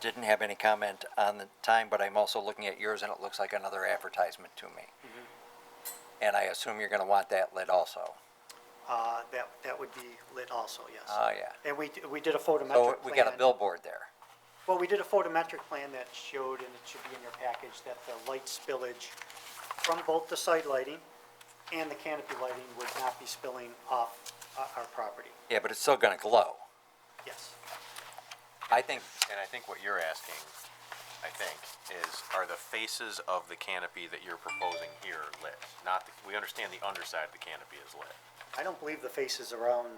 didn't have any comment on the time, but I'm also looking at yours and it looks like another advertisement to me. Mm-hmm. And I assume you're gonna want that lit also. Uh, That, that would be lit also, yes. Oh, yeah. And we, we did a photometric plan. So Oh, we got a billboard there. Well, we did a photometric plan that showed, and it should be in your package, that the light spillage from both the site lighting and the canopy lighting would not be spilling off uh, our property, Yeah, but it's still gonna glow. yes. I think, And I think what you're asking, I think, is are the faces of the canopy that you're proposing here lit? Not, the- we understand the underside of the canopy is lit. I don't believe the faces around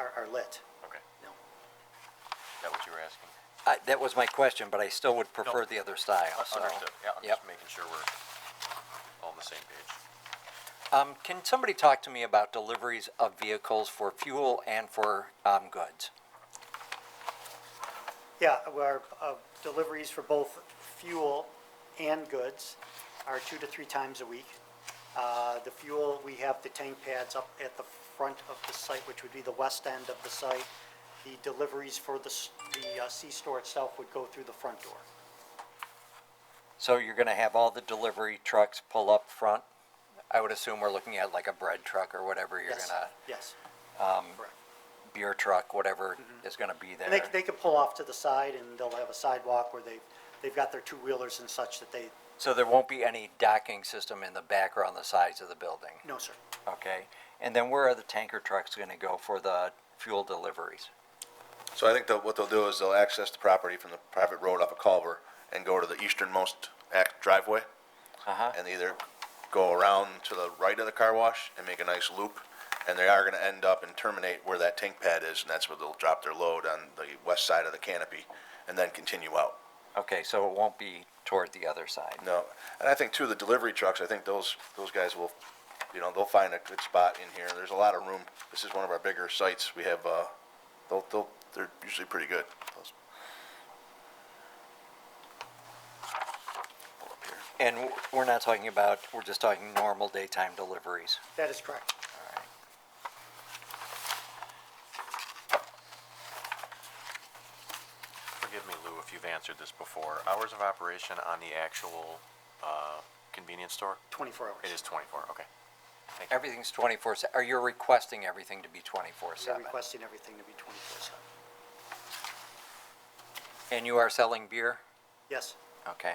are, are lit, Okay, no. is that what you were asking? I, that was my question, but I still would prefer the other style, so. Understood, yeah, I'm Yep. just making sure we're all on the same page. Um, can somebody talk to me about deliveries of vehicles for fuel and for, um, goods? Yeah, our uh, deliveries for both fuel and goods are two to three times a week. Uh, The fuel, we have the tank pads up at the front of the site, which would be the west end of the site. The deliveries for the, s- the uh, C-store itself would go through the front door. So you're gonna have all the delivery trucks pull up front? I would assume we're looking at like a bread truck or whatever you're Yes, gonna, Yes. Correct. beer truck, whatever is gonna be And they, there. they could pull off to the side and they'll have a sidewalk where they, they've got their two-wheelers and such that they, So there won't be any docking system in the back or on the sides of the building, no, sir. okay? And then where are the tanker trucks gonna go for the fuel deliveries? So I think that what they'll do is they'll access the property from the private road off of Culver and go to the easternmost act driveway Uh-huh, and either go around to the right of the car wash and make a nice loop. And they are gonna end up and terminate where that tank pad is, and that's where they'll drop their load on the west side of the canopy and then continue out. okay, so it won't be toward the other side. No, and I think too, the delivery trucks, I think those, those guys will, you know, they'll find a good spot in here. There's a lot of room. This is one of our bigger sites. We have, uh, they'll, they'll, they're usually pretty good. Those- Pull up here. And w- we're not talking about, we're just talking normal daytime deliveries. That is correct. Forgive me, Lou, if you've answered this before. Hours of operation on the actual uh, convenience store? 24 hours. It is 24, okay. Everything's twenty-four, se- or you're requesting everything to be twenty-four They're seven? requesting everything to be 24/7. And you are selling beer? Yes. Okay.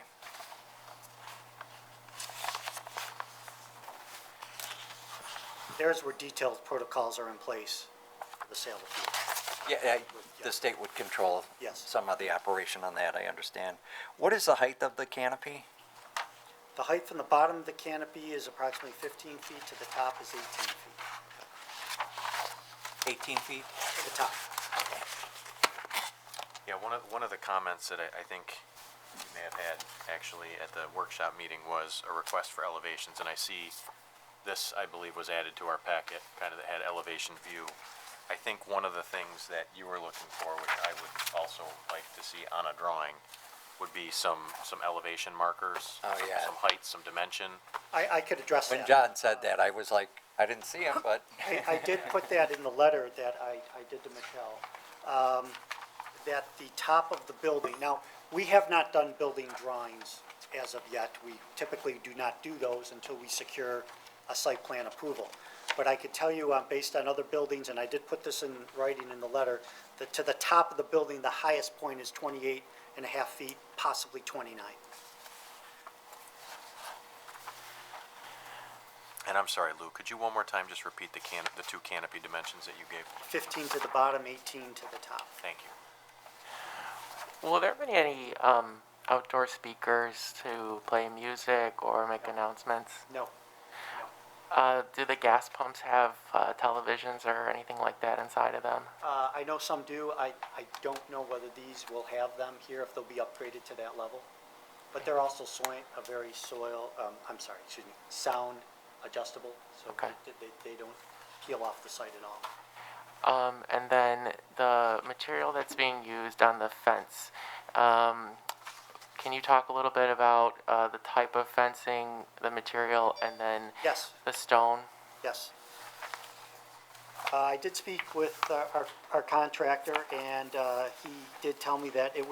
There's where detailed protocols are in place for the sale of fuel. Yeah, I- the state would control Yes. some of the operation on that, I understand. What is the height of the canopy? The height from the bottom of the canopy is approximately 15 feet, to the top is 18 feet, Eighteen feet? to the top. Yeah, one of, one of the comments that I, I think you may have had actually at the workshop meeting was a request for elevations, and I see this, I believe, was added to our packet, kind of that had elevation view. I think one of the things that you were looking for, which I would also like to see on a drawing, would be some, some elevation markers. Oh, yeah. Some height, some dimension. I, I could address that. When John said that, I was like, I didn't see him, but, I, I did put that in the letter that I, I did to Michelle, um, that the top of the building, now, we have not done building drawings as of yet. We typically do not do those until we secure a site plan approval. But I could tell you, uh, based on other buildings, and I did put this in writing in the letter, that to the top of the building, the highest point is 28 and a half feet, possibly 29. And I'm sorry, Lou, could you one more time just repeat the can, the two canopy dimensions that you gave? 15 to the bottom, 18 to the top. Thank you. Will there be any um, outdoor speakers to play music or make announcements? No, Uh, do the gas pumps have uh, televisions or anything like that inside of them? Uh, I know some do. I, I don't know whether these will have them here, if they'll be upgraded to that level. But they're also soil, a very soil, um, I'm sorry, excuse me, sound adjustable, so Okay. they, they, they don't peel off the site at all. Um, and then the material that's being used on the fence. Um, can you talk a little bit about uh, the type of fencing, the material, and then Yes. the stone? Yes. Uh, I did speak with uh, our, our contractor, and, uh, he did tell me that it